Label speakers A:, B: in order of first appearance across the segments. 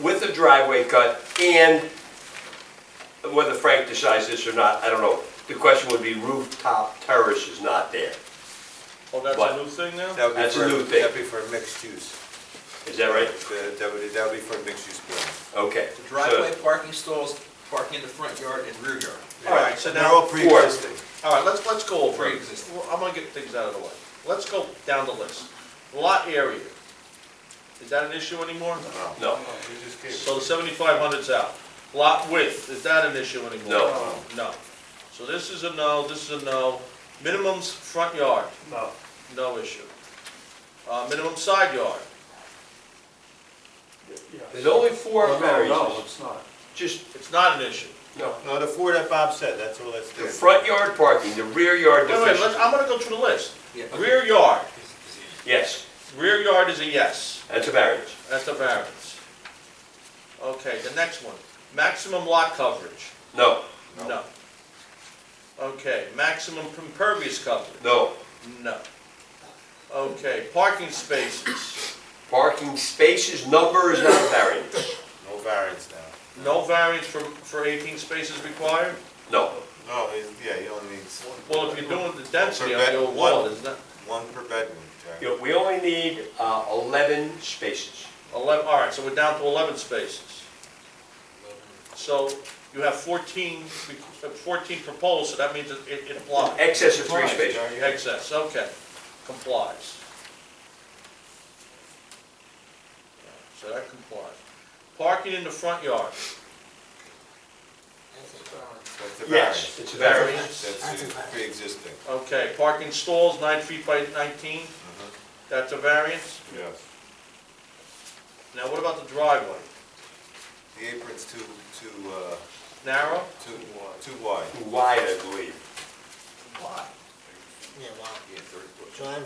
A: with the driveway cut and whether Frank decides this or not, I don't know. The question would be rooftop terrace is not there.
B: Oh, that's
A: What?
B: a new thing now?
C: That would be
A: That's a
C: for-
A: new thing.
C: That'd be for mixed use.
A: Is that right?
C: That that would, that would be for mixed use building.
A: Okay.
D: The
A: so-
D: driveway, parking stalls, parking in the front yard and rear yard.
B: All right, so
C: They're all
B: now,
C: pre-existing.
B: all right, let's, let's go over. it.
D: Pre-existing.
B: Well, I'm gonna get things out of the way. Let's go down the list. Lot area. Is that an issue anymore?
A: No,
B: So the seventy-five hundred's out. Lot width, is that an issue anymore?
A: No.
B: No. So this is a no, this is a no. Minimums front yard,
E: No,
B: no issue. Uh, minimum side yard,
E: yes.
A: there's only four
E: No, no, No,
A: variances.
E: it's not.
A: Just,
B: it's not an issue.
A: no.
C: No, the four that Bob said, that's all that's
A: The
C: there.
A: front yard parking, the rear yard
B: Wait, wait, let's,
A: deficiency.
B: I'm gonna go through the list.
D: Yeah.
B: Rear yard,
A: Yes,
B: rear yard is a yes.
A: that's a variance.
B: That's a variance. Okay, the next one, maximum lot coverage.
A: No,
B: No. Okay, maximum impervious coverage.
A: no.
B: No. Okay, parking spaces,
A: Parking spaces number is not a variance.
C: No variance now.
B: no variance for, for eighteen spaces required?
A: No.
C: No, he's- yeah, you only need
B: Well, if you're doing the density on
C: Prevent
B: your wall, is that
C: one per bedroom,
A: You
C: Jerry.
A: know, We only need uh, 11 spaces.
B: eleven, all right, so we're down to eleven spaces. So you have fourteen, re- fourteen proposed, so that means it, it it applies.
A: Excess of three
C: Right,
A: spaces.
C: Jerry, yeah.
B: Excess, okay, complies. So that complies. Parking in the front yard,
C: That's a
A: Yes,
C: variance.
A: it's a variance.
C: That's uh, pre-existing.
B: okay, parking stalls nine feet by nineteen,
A: Mm-hmm.
B: that's a variance.
C: Yes.
B: Now what about the driveway?
C: The apron's too, too, uh,
B: Narrow?
C: too, too wide.
A: Wide, I believe.
D: Why?
F: Yeah, wow.
C: Yeah, thirty foot.
F: John,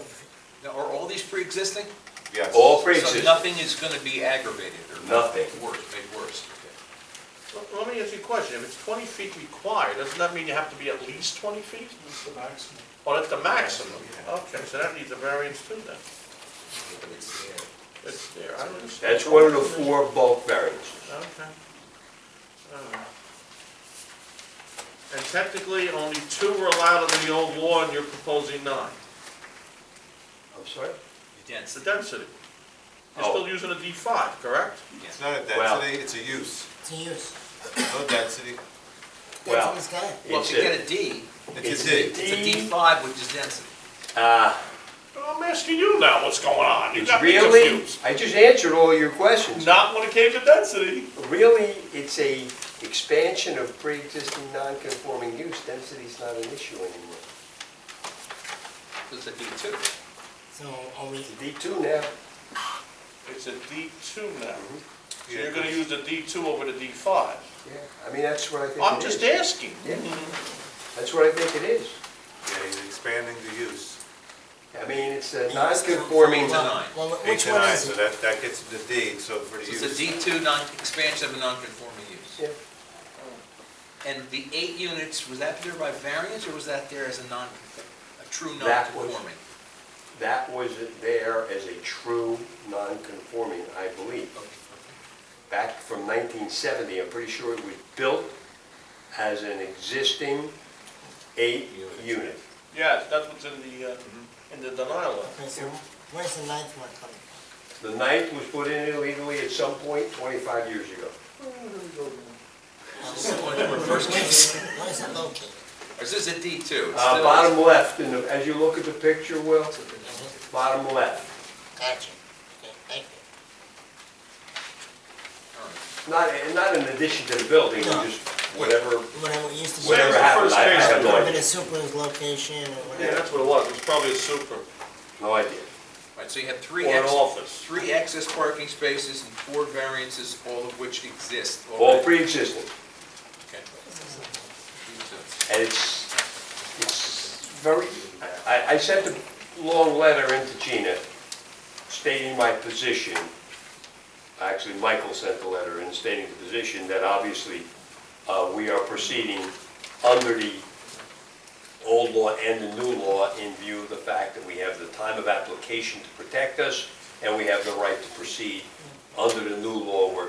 D: Now, are all these pre-existing?
C: Yes.
A: All
D: So
A: pre-existing.
D: nothing is gonna be aggravated or?
A: Nothing.
D: Worse, made worse, okay.
B: Let- Let me ask you a question, if it's twenty feet required, doesn't that mean you have to be at least twenty feet?
E: It's the maximum.
B: Oh, that's the maximum,
C: Yeah.
B: okay, so that needs a variance too then,
D: But it's, yeah.
B: it's there, I understand.
A: That's one of the four bulk variances.
B: Okay. Alright. And technically, only two were allowed under the old law, and you're proposing nine.
A: I'm sorry?
D: The
B: It's the
D: density,
B: density. You're
A: Oh.
B: still using a D five, correct?
D: yeah.
C: It's not a
A: Wow.
C: density, it's a use.
F: it's a use.
C: No density.
A: Well-
F: That's what it's
D: Well,
A: It's
D: to
A: a-
D: get a D,
C: It's a
A: It's-
C: D.
D: it's a D five, which is density.
A: Uh,
B: I'm asking you now what's going on,
A: It's really, I just answered all your questions.
B: Not when it came to density.
A: Really, it's a expansion of pre-existing non-conforming use. Density's not an issue anymore.
D: It's a D two.
F: So only,
A: It's a D2 now.
B: It's a D two now,
A: Mm-hmm.
B: so
C: Yeah,
B: you're gonna
C: it's-
B: use the D two over the D five.
A: Yeah, I mean, that's what I think
B: I'm
A: it
B: just
A: is.
B: asking. Mm-hmm.
A: Yeah. That's what I think it is.
C: Yeah, he's expanding the use.
A: I mean, it's a non-conforming.
D: It's a nine.
F: well,
C: Eight
F: which
C: to
F: one
C: nine,
F: is
C: so
F: it?
C: that, that gets the D, so for the
D: So
C: use.
D: it's a D two non, expansion of a non-conforming use.
A: Yeah.
D: And the eight units, was that there by variance or was that there as a non, a true
A: That was-
D: non-conforming?
A: That was there as a true non-conforming, I believe. Back from 1970, I'm pretty sure it was built as an existing eight unit.
B: Yes, that's what's in the, uh,
A: Mm-hmm.
B: in the denial letter.
F: Okay, so where's the ninth one coming from?
A: The ninth was put in illegally at some point 25 years ago.
D: Is this the one that we're first
F: Where's,
D: making?
F: where's it located?
D: Or is this a D two?
A: Uh, Bottom left, in the- as you look at the picture, Will,
F: Mhm.
A: bottom left.
F: Gotcha. Okay, thank you.
A: Not, not in addition to the building,
F: No.
A: just whatever,
F: Whatever it used to be.
A: whatever happened,
B: first
A: I I
B: case
A: have no
F: Whatever the
A: idea.
F: super's location or
B: Yeah,
F: whatever.
B: that's what it was, it was probably a super,
A: No idea.
D: Right, so you have
B: or
D: three
B: an
D: ex,
B: office.
D: three excess parking spaces and four variances, all of which exist
A: All
D: already.
A: pre-existing.
D: Okay.
A: And it's, it's very, I, I sent a long letter into Gina stating my position. Actually, Michael sent the letter in stating the position that obviously, uh, we are proceeding under the old law and the new law in view of the fact that we have the time of application to protect us and we have the right to proceed under the new law where